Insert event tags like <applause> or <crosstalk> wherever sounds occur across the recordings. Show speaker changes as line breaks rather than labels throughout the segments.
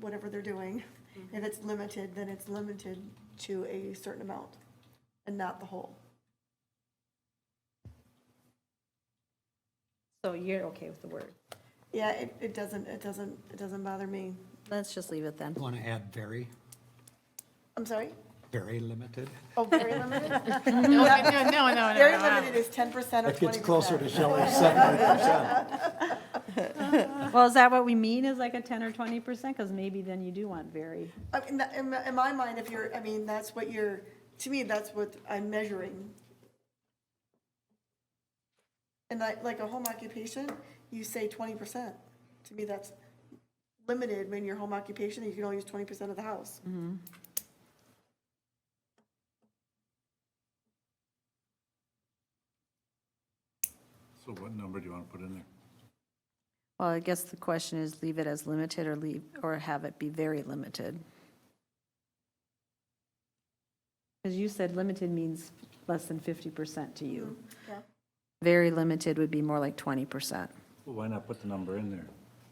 whatever they're doing.
Mm-hmm.
If it's limited, then it's limited to a certain amount and not the whole.
So you're okay with the word?
Yeah, it, it doesn't, it doesn't, it doesn't bother me.
Let's just leave it then.
Want to add very,
I'm sorry?
very limited?
Oh, very limited?
No, no, no, no.
Very limited is ten percent of
That
twenty percent.
gets closer to Shelley's seventy percent.
Well, is that what we mean, is like a 10 or 20%? Because maybe then you do want very.
I mean, that- in, my- in my mind, if you're, I mean, that's what you're, to me, that's what I'm measuring. And like, like a home occupation, you say twenty percent. To me, that's limited when your home occupation, you can only use twenty percent of the house.
Mm-hmm.
So what number do you want to put in there?
Well, I guess the question is leave it as limited or leave, or have it be very limited? Because you said limited means less than 50% to you.
yeah.
Very limited would be more like 20%.
Well, why not put the number in there?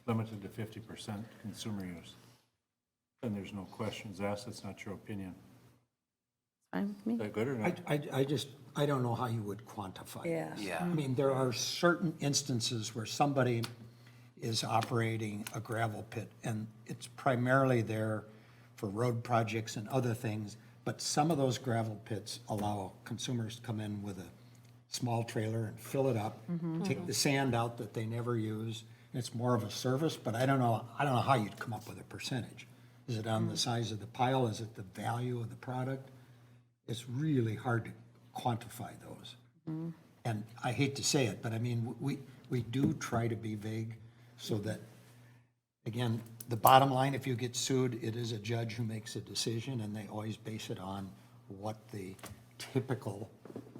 Limited to fifty percent consumer use. Then there's no questions asked, it's not your opinion.
Fine with me.
Is that good or
I,
not?
I, I just, I don't know how you would quantify.
Yeah.
Yeah. I mean, there are certain instances where somebody is operating a gravel pit, and it's primarily there for road projects and other things, but some of those gravel pits allow consumers to come in with a small trailer and fill it up, take the sand out that they never use, and it's more of a service, but I don't know, I don't know how you'd come up with a percentage. Is it on the size of the pile, is it the value of the product? It's really hard to quantify those. And I hate to say it, but I mean, we, we do try to be vague so that, again, the bottom line, if you get sued, it is a judge who makes a decision and they always base it on what the typical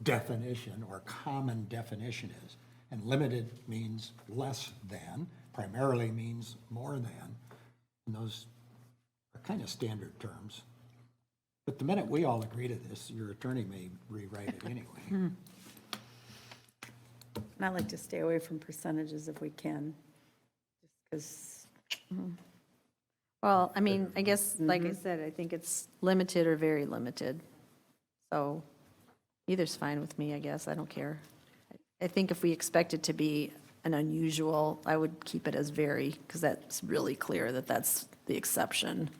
definition or common definition is. And limited means less than, primarily means more than. And those are kind of standard terms. But the minute we all agree to this, your attorney may rewrite it anyway.
And I like to stay away from percentages if we can, just
Well, I mean, I guess, like I said, I think it's limited or very limited. So either's fine with me, I guess, I don't care. I think if we expect it to be an unusual, I would keep it as very, because that's really clear that that's the exception.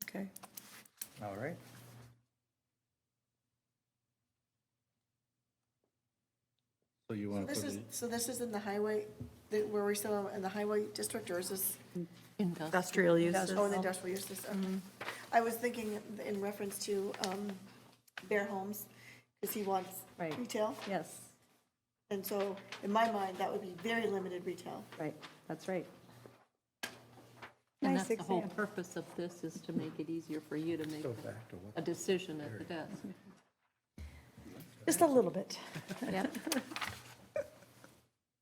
because, okay.
All right.
So you want to
This
put
is,
it,
so this is in the highway, that- where we're still in the highway district, or is this?
Industrial uses.
Oh, in industrial uses, okay. I was thinking in reference to um, Bear Homes, because he wants
Right.
retail.
Yes,
And so in my mind, that would be very limited retail.
right, that's right.
And
Nice
that's the whole
example.
purpose of this, is to make it easier for you to make a decision at the desk.
Just a little bit.
Yep.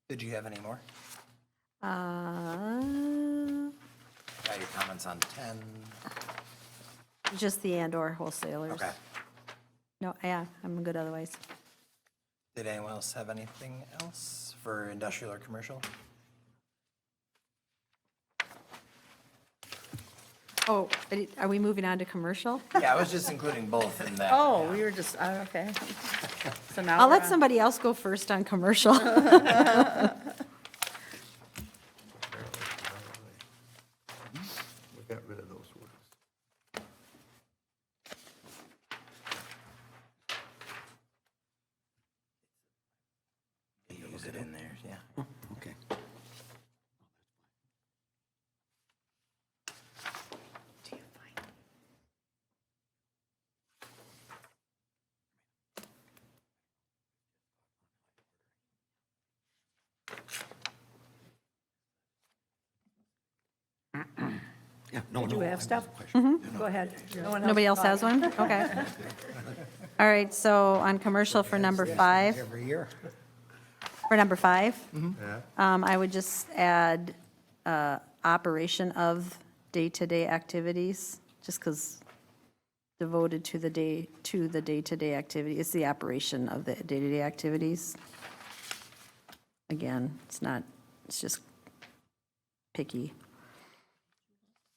Did you have any more?
Uh,
Got your comments on 10?
Just the and/or wholesalers.
Okay.
No, yeah, I'm good otherwise.
Did anyone else have anything else for industrial or commercial?
Oh, I did- are we moving on to commercial?
Yeah, I was just including both in that.
Oh, we were just, oh, okay. So now.
I'll
we're
let
on-
somebody else go first on <laughs> commercial.
We got rid of those words.
Use it in there, yeah.
Okay. Yeah, no,
Do
no.
we have stuff? Go ahead. No one
Nobody else has one? Okay. All right, so on commercial for number five,
Every year.
for number five, um, I would just add uh, operation of day-to-day activities, just because devoted to the day, to the day-to-day activity, it's the operation of the day-to-day activities. Again, it's not, it's just picky.